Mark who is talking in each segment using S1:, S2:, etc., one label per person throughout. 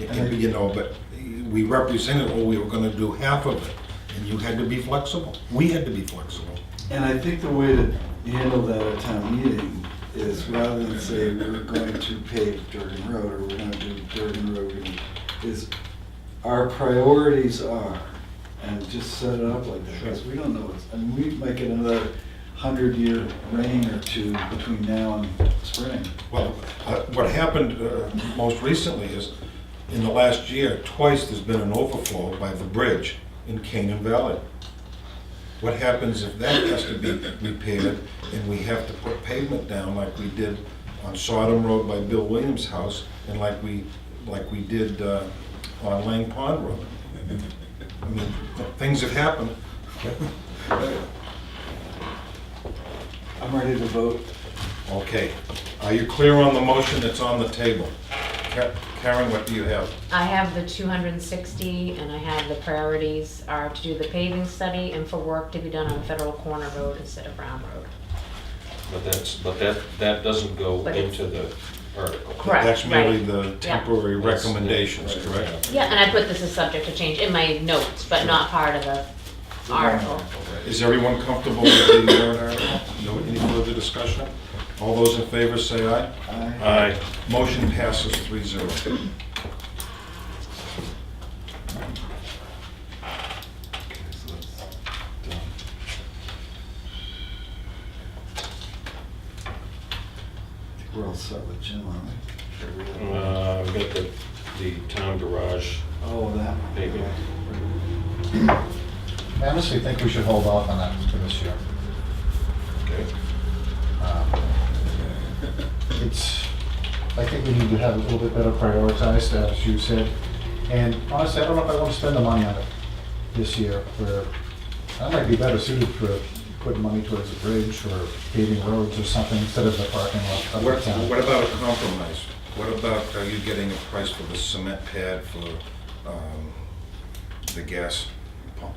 S1: And, you know, but we represented, oh, we were gonna do half of it, and you had to be flexible. We had to be flexible.
S2: And I think the way to handle that at town meeting is rather than say we're going to pave Durgan Road or we're gonna do Durgan Road, we're gonna- is our priorities are, and just set it up like that, because we don't know what's, I mean, we might get another hundred year rain or two between now and spring.
S1: Well, uh, what happened uh, most recently is, in the last year, twice there's been an overflow by the bridge in Canaan Valley. What happens if that has to be repaired and we have to put pavement down like we did on Sodom Road by Bill Williams' house and like we, like we did uh, on Lang Pond Road? I mean, things have happened.
S2: I'm ready to vote.
S1: Okay, are you clear on the motion that's on the table? Ka- Karen, what do you have?
S3: I have the two hundred and sixty, and I have the priorities are to do the paving study and for work to be done on Federal Corner Road instead of Brown Road.
S4: But that's, but that, that doesn't go
S3: But it's-
S4: into the article.
S3: Correct.
S1: That's merely
S3: right.
S1: the
S3: Yeah.
S1: temporary
S4: That's the-
S1: recommendations,
S4: right,
S1: correct?
S3: Yeah, and I put this as subject to change in my notes, but not part of the article.
S1: Is everyone comfortable with the warrant article? No, any further discussion? All those in favor say aye.
S2: Aye.
S4: Aye.
S1: Motion passes 3-0.
S2: Okay, so that's done. I think We're all set with Jim, aren't we?
S4: Uh, I've got the, the town garage
S2: Oh, that.
S4: paving.
S5: I honestly think we should hold off on that for this year. Um,
S4: Okay.
S5: It's, I think we need to have it a little bit better prioritized, as you said. And honestly, I don't know if I want to spend the money on it this year, where I might be better suited for putting money towards a bridge or paving roads or something instead of the parking lot. of
S1: What
S5: the town.
S1: what about a compromise? What about, are you getting a price for the cement pad for um, the gas pump?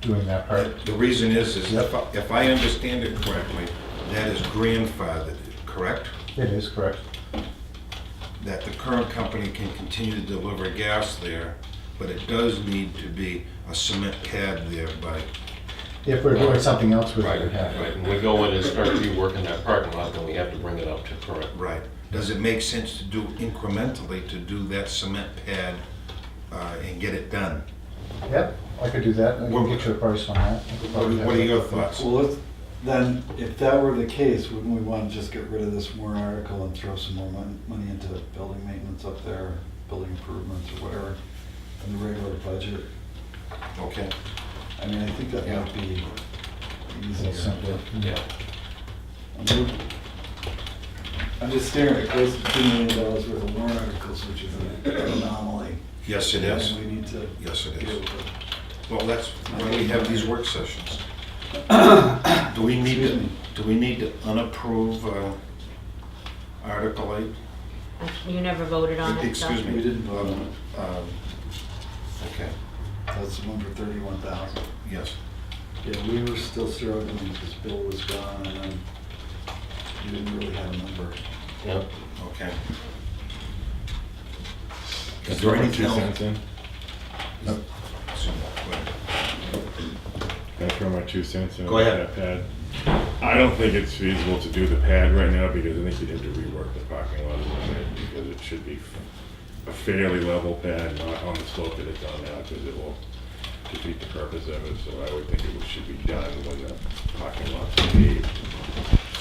S5: Doing that part.
S1: The reason is, is if I-
S5: Yep.
S1: if I understand it correctly, that is grandfathered, correct?
S5: It is correct.
S1: that the current company can continue to deliver gas there, but it does need to be a cement pad there by,
S5: If we're doing something else, we
S4: Right,
S5: would have
S4: right.
S5: it.
S4: When we go in and start reworking that parking lot, then we have to bring it up to current.
S1: right. Does it make sense to do incrementally, to do that cement pad uh, and get it done?
S5: Yep, I could do that. I can get you a price on that. I
S1: What
S5: could probably have
S1: what are
S5: it.
S1: your thoughts?
S2: Well, let's, then, if that were the case, wouldn't we want to just get rid of this warrant article and throw some more mon- money into building maintenance up there, building improvements or whatever, in the regular budget?
S1: Okay,
S2: I mean, I think that might be
S5: It's a
S2: easier.
S5: little simpler.
S4: Yeah.
S2: I'm look- I'm just staring at close to two million dollars worth of warrant articles, which is an anomaly.
S1: yes, it is.
S2: And we need to.
S1: Yes, it
S2: deal
S1: is.
S2: with it.
S1: Well, that's why we have these work sessions. Do we need
S2: Excuse
S1: to,
S2: me.
S1: do we need to unapprove uh, Article 8?
S3: I- You never voted on it, so.
S1: Excuse me.
S2: We didn't vote on it.
S1: Um, Okay,
S2: That's one for thirty-one thousand.
S1: yes.
S2: Yeah, we were still struggling because Bill was gone and then we didn't really have a number.
S4: Yep.
S1: Okay. Is there anything else?
S6: in? Can I throw my two cents in?
S1: Go ahead.
S6: That pad. I don't think it's feasible to do the pad right now because I think you'd have to rework the parking lot a little bit because it should be a fairly level pad, not on the slope that it's on now, because it will defeat the purpose of it. So I would think it should be done when the parking lot's paved.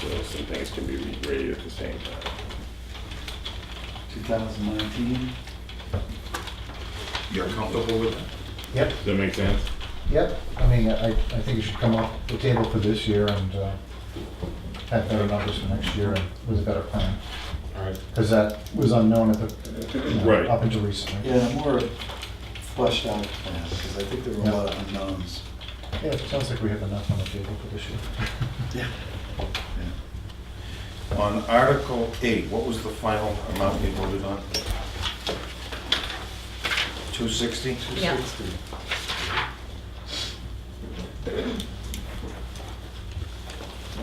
S6: So some things can be regraded at the same time.
S2: Two thousand nineteen,
S1: You're comfortable with that?
S5: Yep.
S6: Does that make sense?
S5: Yep, I mean, I, I think it should come off the table for this year and uh, have better numbers for next year and with a better plan,
S4: All right.
S5: because that was unknown at the, you know,
S6: Right.
S5: up until recently.
S2: yeah, more fleshed out plan, because I think there were a lot of unknowns.
S5: Yeah, it sounds like we have enough on the table for this year.
S2: Yeah.
S1: On Article 8, what was the final amount we voted on? 260?
S3: Yeah,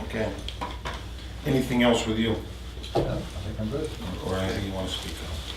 S1: Okay. Anything else with you,
S5: Yeah, I think I'm good.
S1: or anything you want to speak on?